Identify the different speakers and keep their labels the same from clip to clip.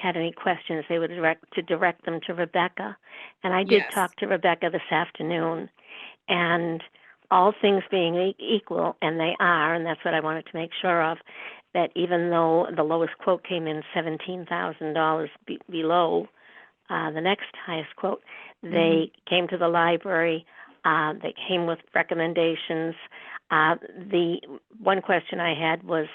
Speaker 1: had any questions, they would direct to direct them to Rebecca. And I did
Speaker 2: Yes.
Speaker 1: talk to Rebecca this afternoon, and all things being e- equal, and they are, and that's what I wanted to make sure of. That even though the lowest quote came in seventeen thousand dollars be- below uh, the next highest quote, they came to the library. Uh, they came with recommendations. Uh, the one question I had was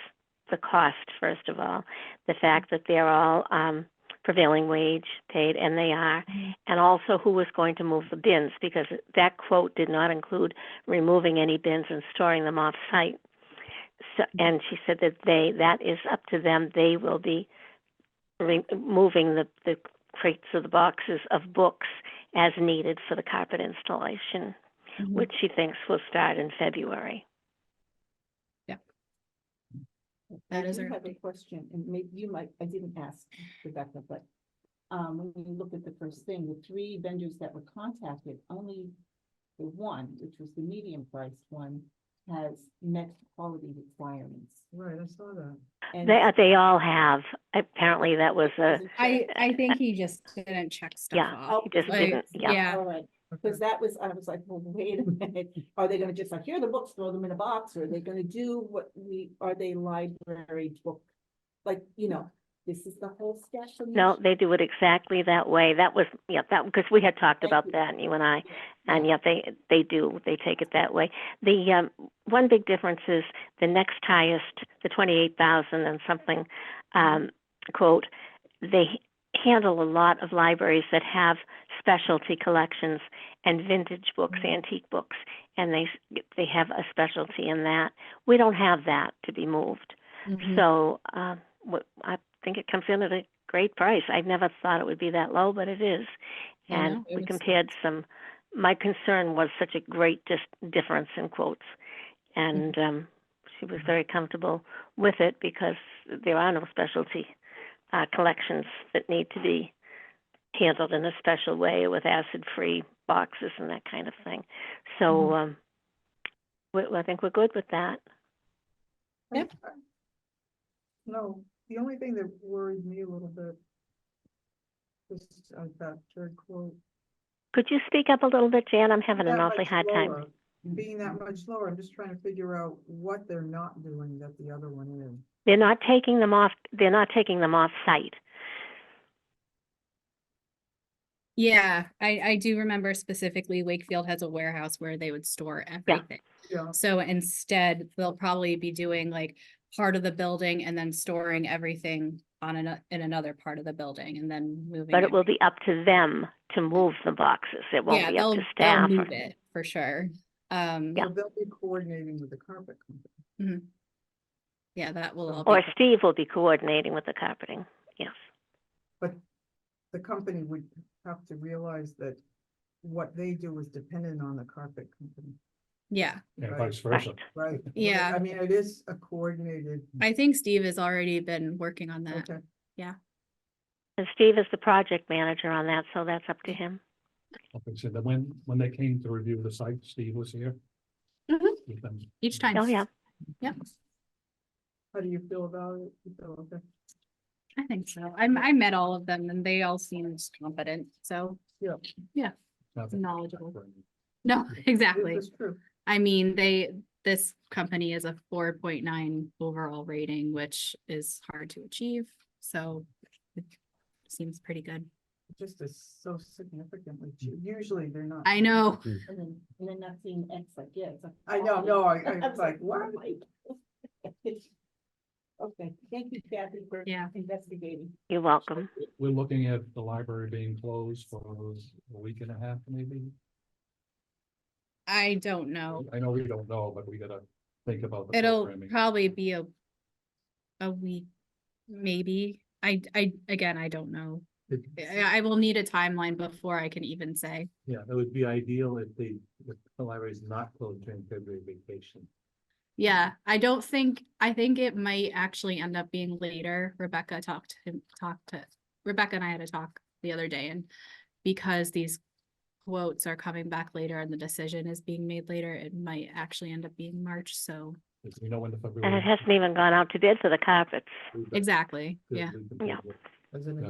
Speaker 1: the cost, first of all, the fact that they're all um, prevailing wage paid, and they are, and also who was going to move the bins, because that quote did not include removing any bins and storing them off site. So, and she said that they that is up to them. They will be removing the, the crates or the boxes of books as needed for the carpet installation,
Speaker 2: Mm-hmm.
Speaker 1: which she thinks will start in February.
Speaker 2: That
Speaker 3: I
Speaker 2: is
Speaker 3: do
Speaker 2: our
Speaker 3: have a
Speaker 2: update.
Speaker 3: Question, and maybe you might, I didn't ask Rebecca, but, um, when you look at the first thing, the three vendors that were contacted, only the one, which was the medium priced one, has met quality requirements.
Speaker 4: Right, I saw that.
Speaker 3: And
Speaker 1: They they all have. Apparently, that was a
Speaker 3: Isn't
Speaker 2: I,
Speaker 3: it?
Speaker 2: I think he just didn't check stuff
Speaker 1: Yeah. Oh,
Speaker 2: off.
Speaker 1: he just
Speaker 2: Like,
Speaker 1: didn't. Yeah.
Speaker 2: Yeah,
Speaker 3: All right, because that was, I was like, well, wait a minute, are they gonna just like, here are the books, throw them in a box, or are they gonna do what we, are they library book? Like, you know, this is the whole stash. of
Speaker 1: No,
Speaker 3: these-
Speaker 1: they do it exactly that way. That was, yeah, that, because we had talked
Speaker 3: Thank
Speaker 1: about
Speaker 3: you.
Speaker 1: that, you and I.
Speaker 3: Yeah.
Speaker 1: And yeah, they, they do, they take it that way. The, um, one big difference is the next highest, the twenty-eight thousand and something, um, quote, they handle a lot of libraries that have specialty collections and vintage books,
Speaker 3: Mm-hmm.
Speaker 1: antique books, and they, s- they have a specialty in that. We don't have that to be moved.
Speaker 2: Mhm.
Speaker 1: So um, what, I think it comes in at a great price. I never thought it would be that low, but it is.
Speaker 2: I
Speaker 1: And
Speaker 2: know, it
Speaker 1: we
Speaker 2: is.
Speaker 1: compared some. My concern was such a great dis- difference in quotes,
Speaker 2: Mm-hmm.
Speaker 1: and um, she was very comfortable with it because there are no specialty uh, collections that need to be handled in a special way with acid-free boxes and that kind of thing. So
Speaker 2: Mm-hmm.
Speaker 1: um, we, I think we're good with that.
Speaker 2: Yep.
Speaker 4: No, the only thing that worried me a little bit was uh, that third quote.
Speaker 1: Could you speak up a little bit, Jan? I'm having an
Speaker 4: That
Speaker 1: awfully
Speaker 4: much
Speaker 1: hard time.
Speaker 4: lower, Being that much lower, I'm just trying to figure out what they're not doing that the other one is.
Speaker 1: They're not taking them off, they're not taking them off site.
Speaker 2: Yeah, I, I do remember specifically Wakefield has a warehouse where they would store everything.
Speaker 4: Yeah,
Speaker 2: So instead, they'll probably be doing like part of the building and then storing everything on an, in another part of the building and then moving.
Speaker 1: But it will be up to them to move the boxes. It won't
Speaker 2: Yeah,
Speaker 1: be up
Speaker 2: they'll,
Speaker 1: to
Speaker 2: they'll
Speaker 1: staff. or-
Speaker 2: move it for sure. Um,
Speaker 1: Yeah.
Speaker 4: so they'll be coordinating with the carpet company.
Speaker 2: mhm. yeah, that will all
Speaker 1: Or
Speaker 2: be,
Speaker 1: Steve will be coordinating with the carpeting, yes.
Speaker 4: The company would have to realize that what they do is dependent on the carpet company.
Speaker 2: yeah.
Speaker 5: And
Speaker 4: Right.
Speaker 5: vice versa.
Speaker 1: Right.
Speaker 4: Right.
Speaker 2: Yeah.
Speaker 4: I mean, it is a coordinated.
Speaker 2: I think Steve has already been working on that.
Speaker 4: Okay.
Speaker 1: And Steve is the project manager on that, so that's up to him.
Speaker 5: Okay, so then when, when they came to review the site, Steve was here.
Speaker 2: Mhm.
Speaker 5: With them.
Speaker 2: Each time.
Speaker 1: Oh, yeah.
Speaker 2: Yep,
Speaker 4: How do you feel about it? You feel okay?
Speaker 2: I think so. I, I met all of them and they all seemed competent, so,
Speaker 5: Nothing.
Speaker 2: Knowledgeable. no, exactly.
Speaker 4: It's true.
Speaker 2: I mean, they, this company is a four point nine overall rating, which is hard to achieve, so it seems pretty good.
Speaker 4: It Just is so significantly cheap. Usually they're not.
Speaker 2: I know,
Speaker 3: And then, and then not seeing X like, yeah. it's like,
Speaker 4: I know,
Speaker 3: wow.
Speaker 4: no, I,
Speaker 3: I
Speaker 4: I
Speaker 3: was
Speaker 4: was like, what?
Speaker 3: wow, Mike. Okay, thank you Kathy for
Speaker 2: Yeah.
Speaker 3: investigating.
Speaker 1: You're welcome.
Speaker 5: We're looking at the library being closed for a week and a half, maybe.
Speaker 2: I don't know.
Speaker 5: I know we don't know, but we gotta think about. the
Speaker 2: It'll
Speaker 5: programming.
Speaker 2: probably be a, a week, maybe. I, I, again, I don't know.
Speaker 5: It-
Speaker 2: I, I will need a timeline before I can even say.
Speaker 6: Yeah, it would be ideal if the, if the library is not closed during February vacation.
Speaker 2: Yeah, I don't think, I think it might actually end up being later. Rebecca talked to him, talked to, Rebecca and I had a talk the other day and because these quotes are coming back later and the decision is being made later, it might actually end up being March, so,
Speaker 5: If We know when the
Speaker 1: And it
Speaker 5: February.
Speaker 1: hasn't even gone out to bid for the carpets.
Speaker 2: exactly, yeah.
Speaker 5: Good, we can
Speaker 1: Yeah.
Speaker 5: do it.
Speaker 6: Doesn't it?
Speaker 5: Yeah.